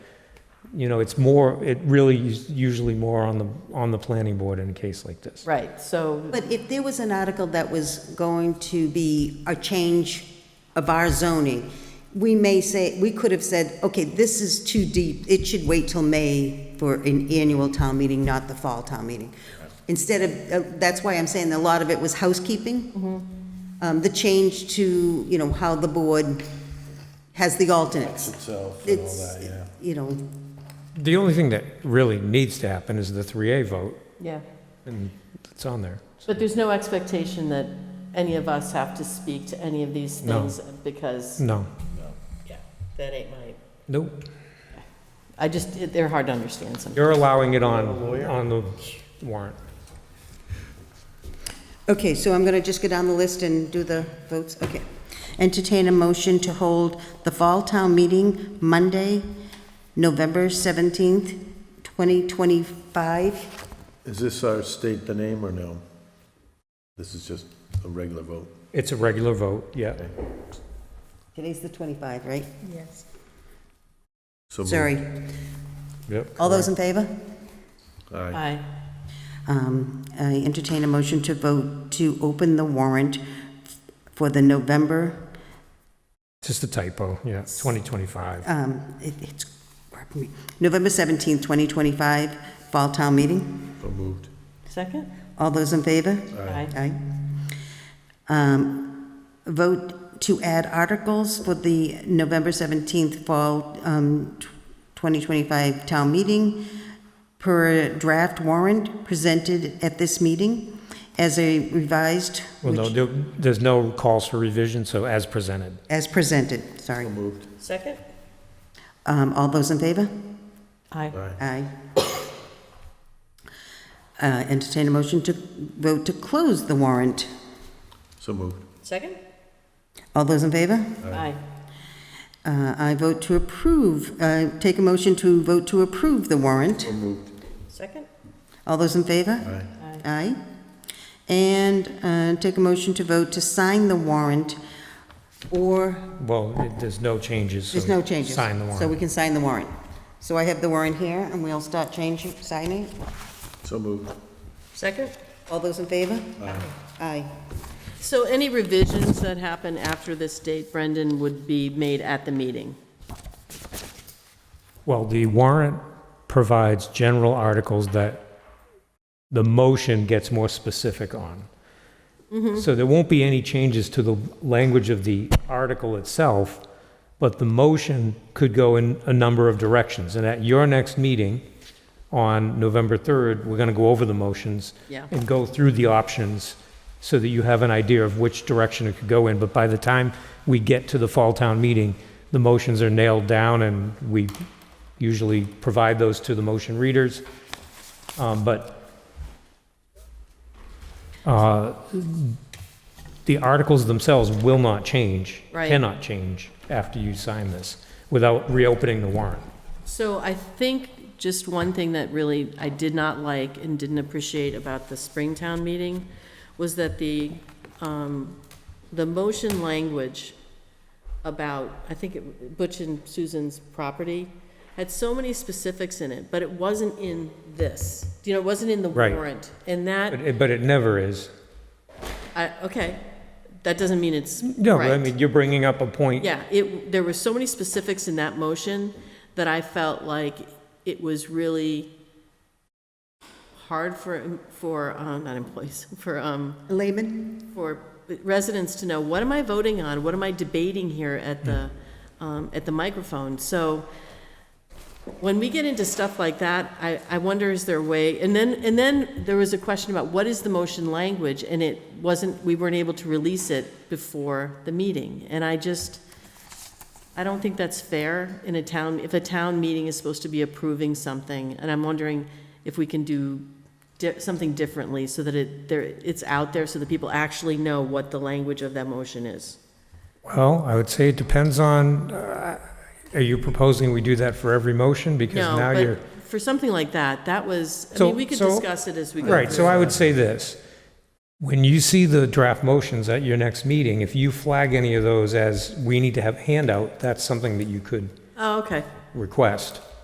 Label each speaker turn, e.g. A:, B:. A: you know, it's more, it really is usually more on the, on the planning board in a case like this.
B: Right, so,
C: But if there was an article that was going to be a change of our zoning, we may say, we could have said, okay, this is too deep, it should wait till May for an annual town meeting, not the fall town meeting. Instead of, uh, that's why I'm saying a lot of it was housekeeping. Um, The change to, you know, how the board has the alternates.
D: itself and all
C: It's,
D: that, yeah.
C: you know,
A: The only thing that really needs to happen is the 3A vote,
B: yeah.
A: and it's on there.
B: But there's no expectation that any of us have to speak to any of these
A: No.
B: things because,
A: No,
B: yeah, that ain't my,
A: nope.
B: I just, it- they're hard to understand sometimes.
A: You're allowing it on, on the warrant.
C: Okay, so I'm going to just go down the list and do the votes, okay. Entertain a motion to hold the Fall Town Meeting Monday, November 17th, 2025.
D: Is this our state the name or no? This is just a regular vote.
A: It's a regular vote, yeah.
C: Today's the 25, right?
D: So moved.
C: Sorry.
A: Yep.
C: All those in favor?
D: Aye.
B: Aye,
C: Um, I entertain a motion to vote to open the warrant for the November,
A: Just a typo, yeah, 2025.
C: um, it- it's, November 17th, 2025 Fall Town Meeting.
D: So moved.
B: second?
C: All those in favor?
B: Aye.
C: Aye. Um, Vote to add articles for the November 17th Fall um, 2025 Town Meeting per draft warrant presented at this meeting as a revised,
A: Well, no,
C: which-
A: there- there's no calls for revision, so as presented.
C: as presented, sorry.
D: Moved.
B: Second?
C: Um, All those in favor?
B: Aye,
D: Aye.
C: Aye. Uh, Entertain a motion to vote to close the warrant.
D: So moved.
B: second?
C: All those in favor?
B: Aye,
C: Uh, I vote to approve, uh, take a motion to vote to approve the warrant.
D: So moved.
B: second?
C: All those in favor?
D: Aye.
B: Aye,
C: Aye. And uh, take a motion to vote to sign the warrant, or,
A: Well, it- there's no changes. so
C: there's no changes.
A: Sign the
C: So we
A: warrant.
C: can sign the warrant. So I have the warrant here, and we'll start changing, signing.
D: So moved.
B: second?
C: All those in favor? Aye.
B: So any revisions that happen after this date, Brendan, would be made at the meeting?
A: Well, the warrant provides general articles that the motion gets more specific on. So there won't be any changes to the language of the article itself, but the motion could go in a number of directions. And at your next meeting on November 3rd, we're going to go over the motions
B: Yeah.
A: and go through the options so that you have an idea of which direction it could go in. But by the time we get to the fall town meeting, the motions are nailed down and we usually provide those to the motion readers. Um, But uh, the articles themselves will not change.
B: Right.
A: Cannot change after you sign this without reopening the warrant.
B: So I think just one thing that really I did not like and didn't appreciate about the Springtown meeting was that the, um, the motion language about, I think it- Butch and Susan's property, had so many specifics in it, but it wasn't in this. You know, it wasn't in the
A: Right.
B: warrant. And that,
A: But it, but it never is.
B: I, okay, that doesn't mean it's
A: No, but I
B: right.
A: mean, you're bringing up a point.
B: Yeah, it, there were so many specifics in that motion that I felt like it was really hard for, for, uh, not employees, for, um,
C: Lehman?
B: for residents to know, what am I voting on? What am I debating here at the, um, at the microphone? So when we get into stuff like that, I, I wonder is there a way, and then, and then there was a question about what is the motion language? And it wasn't, we weren't able to release it before the meeting. And I just, I don't think that's fair in a town, if a town meeting is supposed to be approving something, and I'm wondering if we can do di- something differently so that it, there, it's out there so that people actually know what the language of that motion is.
A: Well, I would say it depends on, uh, are you proposing we do that for every motion? Because
B: No,
A: now you're.
B: but for something like that, that was, I
A: So-
B: mean, we could
A: so-
B: discuss it as we go.
A: Right, so
B: through.
A: I would say this. When you see the draft motions at your next meeting, if you flag any of those as, we need to have handout, that's something that you could
B: Oh, okay,
A: request.